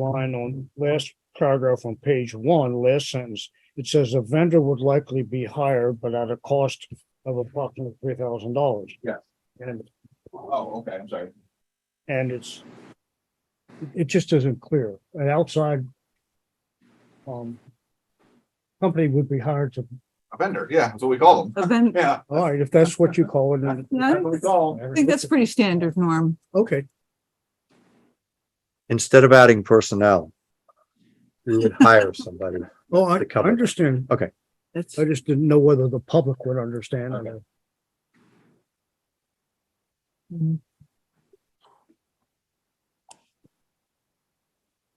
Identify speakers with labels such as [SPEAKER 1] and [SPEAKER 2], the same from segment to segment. [SPEAKER 1] line on last paragraph on page one, last sentence, it says the vendor would likely be hired, but at a cost of approximately three thousand dollars.
[SPEAKER 2] Yes.
[SPEAKER 1] And,
[SPEAKER 2] Oh, okay, I'm sorry.
[SPEAKER 1] and it's, it just isn't clear. An outside um, company would be hired to,
[SPEAKER 2] A vendor, yeah, that's what we call them.
[SPEAKER 3] A ven-
[SPEAKER 2] Yeah.
[SPEAKER 1] all right, if that's what you call it. then-
[SPEAKER 2] That's what we call them.
[SPEAKER 3] I think that's pretty standard, Norm.
[SPEAKER 1] Okay,
[SPEAKER 4] instead of adding personnel, we would hire somebody.
[SPEAKER 1] well, I
[SPEAKER 4] To
[SPEAKER 1] I
[SPEAKER 4] cover.
[SPEAKER 1] understand.
[SPEAKER 3] That's,
[SPEAKER 1] I just didn't know whether the public would understand.
[SPEAKER 2] Okay.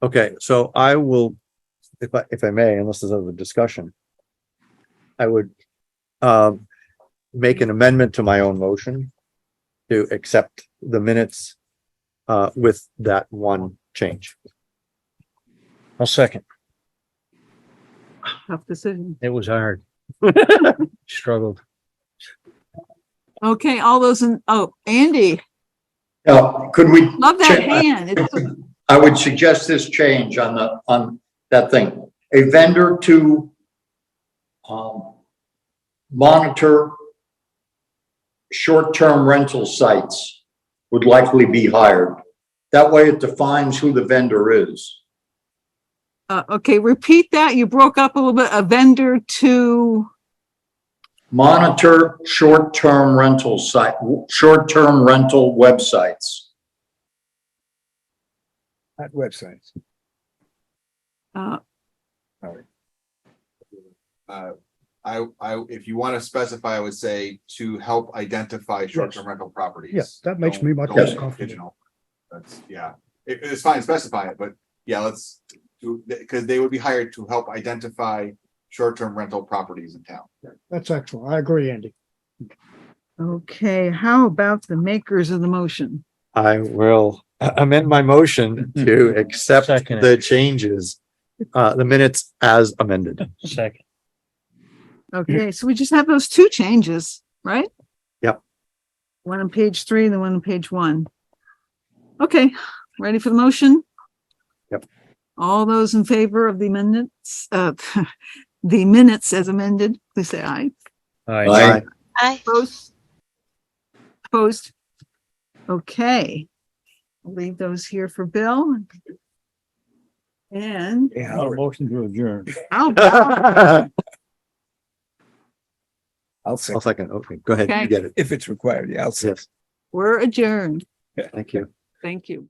[SPEAKER 4] Okay, so I will, if I, if I may, unless there's other discussion, I would um, make an amendment to my own motion to accept the minutes uh, with that one change.
[SPEAKER 5] I'll second.
[SPEAKER 3] tough decision.
[SPEAKER 5] It was hard. Struggled.
[SPEAKER 3] Okay, all those in, oh, Andy,
[SPEAKER 6] Now, could we,
[SPEAKER 3] love that
[SPEAKER 6] Check.
[SPEAKER 3] hand. It's-
[SPEAKER 6] I would suggest this change on the, on that thing, a vendor to um, monitor short-term rental sites would likely be hired. That way it defines who the vendor is.
[SPEAKER 3] Uh, okay, repeat that. You broke up a little bit. A vendor to,
[SPEAKER 6] Monitor short-term rental site, short-term rental websites.
[SPEAKER 5] At websites.
[SPEAKER 3] uh,
[SPEAKER 2] Uh, I, I, if you want to specify, I would say to help identify short-term rental properties.
[SPEAKER 1] Yes, that makes
[SPEAKER 2] Don't-
[SPEAKER 1] me much
[SPEAKER 2] don't
[SPEAKER 1] more
[SPEAKER 2] make it
[SPEAKER 1] comfortable.
[SPEAKER 2] pigeonhole. That's, yeah, It- it's fine, specify it, but yeah, let's do, because they would be hired to help identify short-term rental properties in town.
[SPEAKER 1] That's excellent. I agree, Andy.
[SPEAKER 3] okay, how about the makers of the motion?
[SPEAKER 4] I will amend my motion to accept
[SPEAKER 5] Second it.
[SPEAKER 4] the changes, uh, the minutes as amended.
[SPEAKER 5] Second.
[SPEAKER 3] Okay, so we just have those two changes, right?
[SPEAKER 4] Yep.
[SPEAKER 3] One on page three and the one on page one. Okay, ready for the motion?
[SPEAKER 4] Yep.
[SPEAKER 3] All those in favor of the amendments, uh, the minutes as amended, please say aye.
[SPEAKER 5] All right.
[SPEAKER 6] Aye.
[SPEAKER 7] Aye.
[SPEAKER 3] Opposed? Opposed? Okay. I'll Leave those here for Bill. And oh,
[SPEAKER 5] motion to adjourn.
[SPEAKER 3] how about,
[SPEAKER 4] I'll
[SPEAKER 8] I'll say,
[SPEAKER 4] second. Okay, go ahead.
[SPEAKER 3] Okay.
[SPEAKER 4] You get it.
[SPEAKER 8] if it's required, yeah, I'll say.
[SPEAKER 4] Yes,
[SPEAKER 3] we're adjourned.
[SPEAKER 4] thank you.
[SPEAKER 3] Thank you.